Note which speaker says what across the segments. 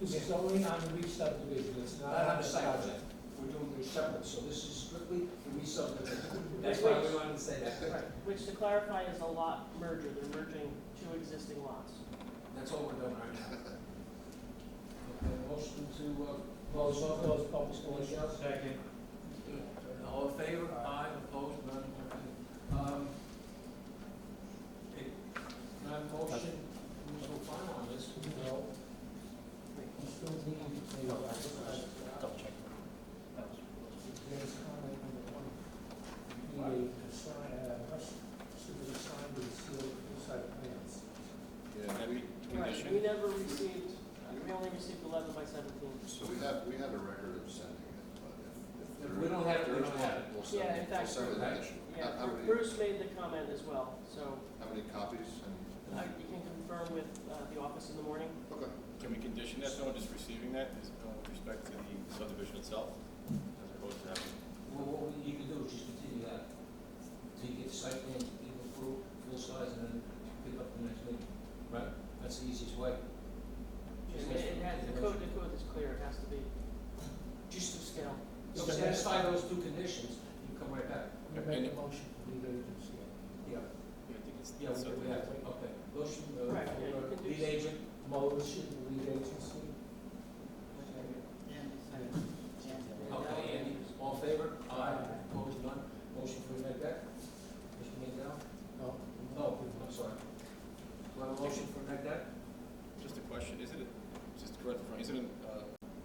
Speaker 1: This is only on the re-subdivision, it's not
Speaker 2: Not
Speaker 1: on
Speaker 2: on
Speaker 1: the
Speaker 2: the site plan.
Speaker 1: project.
Speaker 2: We're doing, we're separate, so this is strictly the re-subdivision.
Speaker 3: That's why we
Speaker 2: Which-
Speaker 3: wanted to say that.
Speaker 2: Right,
Speaker 4: Which to clarify is a lot merger, they're merging two existing lots.
Speaker 2: that's all we're doing right now. Okay, motion to, uh,
Speaker 1: Close,
Speaker 2: close off
Speaker 1: close public hearing.
Speaker 3: Second.
Speaker 2: All in favor, aye, opposed, none, um, it, my motion, who's the final on this?
Speaker 1: No.
Speaker 2: Double check.
Speaker 1: Today's comment number one. The sign, uh, must, should be signed with sealed inside plans.
Speaker 5: Yeah, we,
Speaker 4: Right, we never received, we only received eleven by seventeen.
Speaker 5: so we have, we have a record of sending it, but if, if.
Speaker 3: If
Speaker 5: there-
Speaker 3: we don't have it, we
Speaker 5: there's
Speaker 3: don't
Speaker 5: one,
Speaker 3: have it.
Speaker 5: We'll send
Speaker 4: Yeah, in
Speaker 5: it, we'll
Speaker 4: fact,
Speaker 5: send it
Speaker 3: right.
Speaker 5: additional.
Speaker 4: Yeah,
Speaker 5: How- How many,
Speaker 4: Bruce made the comment as well, so
Speaker 5: how many copies and,
Speaker 4: uh, you can confirm with uh, the office in the morning.
Speaker 5: okay.
Speaker 6: Can we condition that, someone just receiving that, is, uh, with respect to the subdivision itself, as opposed to having?
Speaker 2: Well, what we- you can do is just continue that, till you get the site plan, you can approve full size, and then pick up the next meeting, right? That's the easiest way. Just
Speaker 4: And it
Speaker 2: ask
Speaker 4: had,
Speaker 2: for
Speaker 4: the code, the code is clear, it has to be
Speaker 2: Just to
Speaker 4: scale.
Speaker 2: So satisfy those two conditions, you come right back.
Speaker 1: We make a motion for lead agency.
Speaker 2: Yeah.
Speaker 6: Yeah, I think it's.
Speaker 2: Yeah, we we have,
Speaker 6: Oh.
Speaker 2: okay. Motion, uh,
Speaker 4: Right, yeah, you
Speaker 2: for
Speaker 4: can do
Speaker 2: lead
Speaker 4: s-
Speaker 2: agent.
Speaker 1: Motion for lead agency.
Speaker 2: Okay, Andy, all in favor? Aye. Opposed, none? Motion for Mr. Beck? Mr. Mandel?
Speaker 1: No.
Speaker 2: No, I'm sorry. Do I have a motion for Mr. Beck?
Speaker 6: Just a question, isn't it, just to correct the front, isn't it, uh,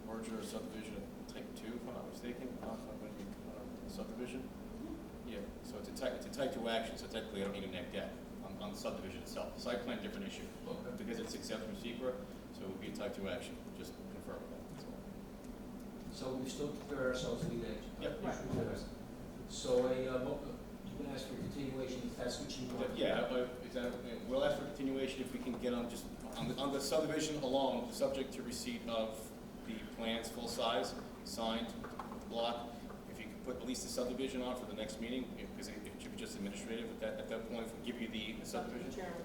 Speaker 6: merger or subdivision of type two, if I'm not mistaken, uh, when you, uh, subdivision? Yeah, so it's a type, it's a type two action, so technically I don't need a neg deck on, on the subdivision itself, The site plan, different issue,
Speaker 2: Okay.
Speaker 6: because it's exempt from secret, so it would be a type two action, just confirm that, that's all.
Speaker 2: So we still prepare ourselves to lead agent?
Speaker 6: Yep.
Speaker 2: Yes, we do. So a, uh, mo- you can ask for continuation if that's what you want.
Speaker 6: Yeah, uh, is that, we'll ask for continuation if we can get on just, on the, on the subdivision alone, subject to receipt of the plans full size, signed, block. If you can put at least the subdivision on for the next meeting, because it it should be just administrative at that, at that point, we'll give you the
Speaker 4: It's up to the
Speaker 6: subdivision.
Speaker 4: chairman.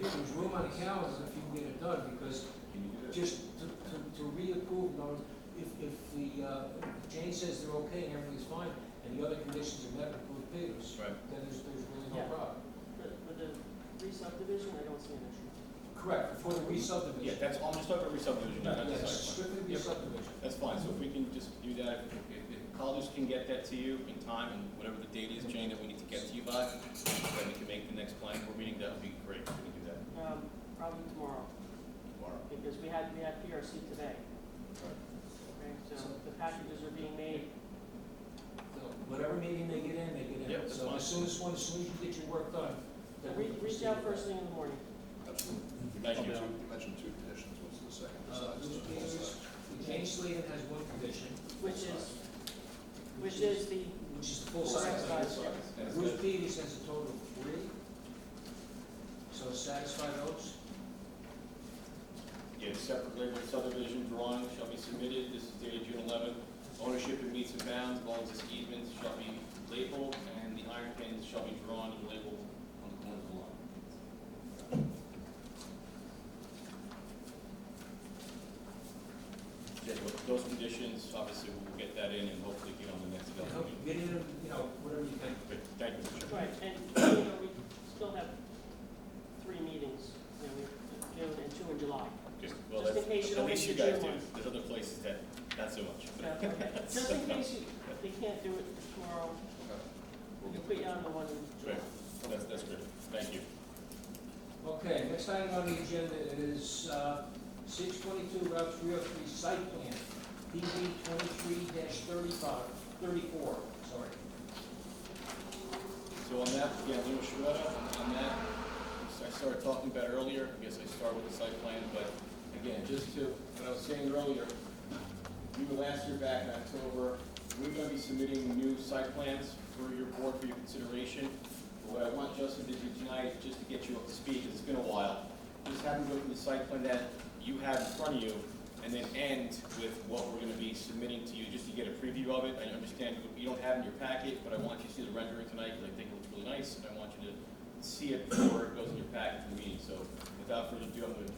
Speaker 2: There's room on the calendar if you can get it done, because
Speaker 6: Can you do that?
Speaker 2: Just to, to, to reapprove, no, if, if the, uh, Jane says they're okay and everything's fine, and the other conditions are met, approve Peters,
Speaker 6: Right.
Speaker 2: then there's, there's really
Speaker 4: Yeah.
Speaker 2: no problem.
Speaker 4: But With the re-subdivision, I don't see an issue.
Speaker 2: Correct, for the
Speaker 6: Yeah,
Speaker 2: re-subdivision.
Speaker 6: that's, I'm just talking about re-subdivision, not the
Speaker 2: Yes,
Speaker 6: site plan.
Speaker 2: strictly
Speaker 6: Yep.
Speaker 2: re-subdivision.
Speaker 6: That's fine, so if we can just do that, if, if, if colleges can get that to you in time, and whatever the date is, Jane, that we need to get to you by, then we can make the next planning board meeting, that would be great, if we can do that
Speaker 4: Um, Probably tomorrow,
Speaker 6: tomorrow.
Speaker 4: because we had, we had PRC today. Okay, so the packages are being made
Speaker 2: So Whatever meeting they get in, they get in.
Speaker 6: Yep, that's
Speaker 2: So
Speaker 6: fine.
Speaker 2: as soon as, one- as soon as you get your work done, then we
Speaker 4: Re-
Speaker 2: can
Speaker 4: Reach
Speaker 2: proceed.
Speaker 4: out first thing in the morning.
Speaker 5: Absolutely. You
Speaker 6: Thank you.
Speaker 5: mentioned two, you mentioned two conditions, what's the second
Speaker 2: Uh,
Speaker 5: besides
Speaker 2: Bruce
Speaker 5: the full
Speaker 2: Peters,
Speaker 5: size?
Speaker 2: Jane Sladen has one condition,
Speaker 4: Which is, which is the,
Speaker 2: which is the full size.
Speaker 4: Full size.
Speaker 6: That's
Speaker 2: Bruce
Speaker 6: it.
Speaker 2: Peters has a total of three, so satisfy those.
Speaker 6: Yeah, separate label subdivision drawing shall be submitted, this is dated June eleventh. Ownership in meets and bounds, of all existing easements shall be labeled, and the iron pins shall be drawn and labeled on the corner of the lot. Yeah, tho- those conditions, obviously, we'll get that in and hopefully get on the next
Speaker 2: I
Speaker 6: development.
Speaker 2: hope
Speaker 6: meeting.
Speaker 2: you get in, you know, whatever you can.
Speaker 6: But Thank you, Mr. Chairman.
Speaker 4: right, and, you know, we still have three meetings, you know, we have June and two in July.
Speaker 6: Just, well,
Speaker 4: Just in
Speaker 6: that's,
Speaker 4: case you don't
Speaker 6: at least you
Speaker 4: make the
Speaker 6: guys do,
Speaker 4: June one.
Speaker 6: there's other places that, not so much. but-
Speaker 4: Yeah, okay. Just in case you, they can't do it tomorrow,
Speaker 5: Okay. We'll
Speaker 4: we'll
Speaker 5: get
Speaker 4: put you
Speaker 5: the-
Speaker 4: on the one in July.
Speaker 6: Great. That's, that's great, thank you.
Speaker 2: Okay, next item on the agenda is uh, six twenty-two Route three oh three site plan, PB twenty-three thirty-five, thirty-four, sorry.
Speaker 6: So on that, yeah, Leo Shirota, on that, I started talking about earlier, I guess I start with the site plan, but again, just to, what I was saying earlier, we were last year back in October, we're gonna be submitting new site plans for your board for your consideration. What I want Justin to do tonight, just to get you up to speed, 'cause it's been a while, just have him go through the site plan that you have in front of you, and then end with what we're gonna be submitting to you, just to get a preview of it. I understand you- you don't have it in your packet, but I want you to see the rendering tonight, because I think it looks really nice, and I want you to see it before it goes in your packet for the meeting. So without further ado, I'm gonna